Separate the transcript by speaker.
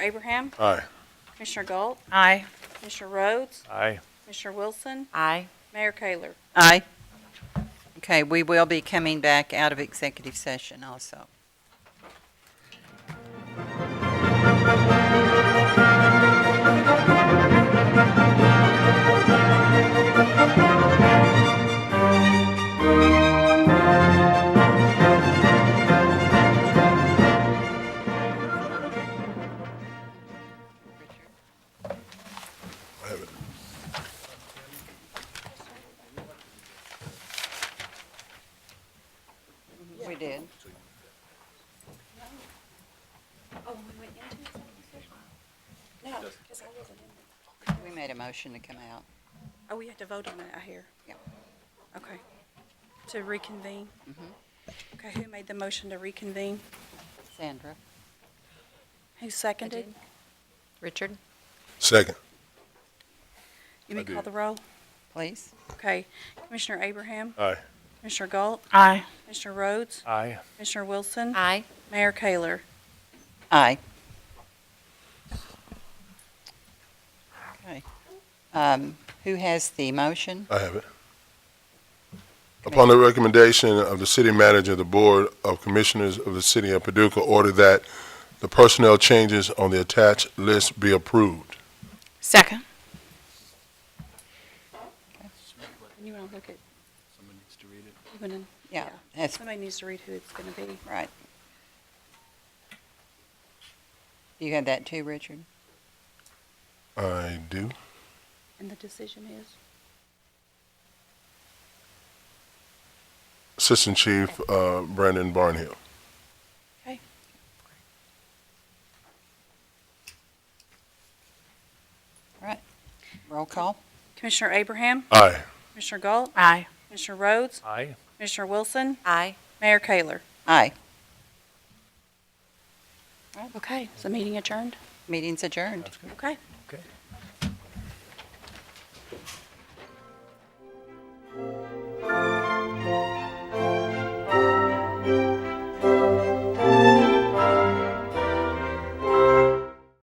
Speaker 1: Abraham,
Speaker 2: Aye.
Speaker 1: Commissioner Galt,
Speaker 3: Aye.
Speaker 1: Commissioner Rhodes,
Speaker 2: Aye.
Speaker 1: Commissioner Wilson,
Speaker 3: Aye.
Speaker 1: Mayor Kayler.
Speaker 4: Aye. Okay, we will be coming back out of executive session also. We did.
Speaker 1: Oh,
Speaker 4: We made a motion to come out.
Speaker 1: Oh, we had to vote on that, I hear.
Speaker 4: Yep.
Speaker 1: Okay. To reconvene?
Speaker 4: Mhm.
Speaker 1: Okay, who made the motion to reconvene?
Speaker 4: Sandra?
Speaker 1: Who seconded?
Speaker 3: Richard?
Speaker 2: Second.
Speaker 1: You
Speaker 2: I
Speaker 1: may
Speaker 2: did.
Speaker 1: call the roll.
Speaker 4: Please?
Speaker 1: Okay. Commissioner Abraham,
Speaker 2: Aye.
Speaker 1: Commissioner Galt,
Speaker 3: Aye.
Speaker 1: Commissioner Rhodes,
Speaker 2: Aye.
Speaker 1: Commissioner Wilson,
Speaker 3: Aye.
Speaker 1: Mayor Kayler.
Speaker 4: Aye. Okay. Um, Who has the motion?
Speaker 2: I have it. Upon the recommendation of the city manager, the Board of Commissioners of the City of Paducah order that the personnel changes on the attached list be approved.
Speaker 3: Second.
Speaker 1: You want to look at? Someone needs to
Speaker 4: Yeah,
Speaker 1: read it.
Speaker 4: that's
Speaker 1: Somebody needs to read who it's going to be.
Speaker 4: right. You had that too, Richard?
Speaker 2: I do.
Speaker 1: And the decision is?
Speaker 2: Assistant Chief uh, Brandon Barnhill.
Speaker 4: Roll call?
Speaker 1: Commissioner Abraham,
Speaker 2: Aye.
Speaker 1: Commissioner Galt,
Speaker 3: Aye.
Speaker 1: Commissioner Rhodes,
Speaker 2: Aye.
Speaker 1: Commissioner Wilson,
Speaker 3: Aye.
Speaker 1: Mayor Kayler.
Speaker 4: Aye.
Speaker 1: Okay, is the meeting adjourned?
Speaker 4: Meeting's adjourned.
Speaker 1: Okay,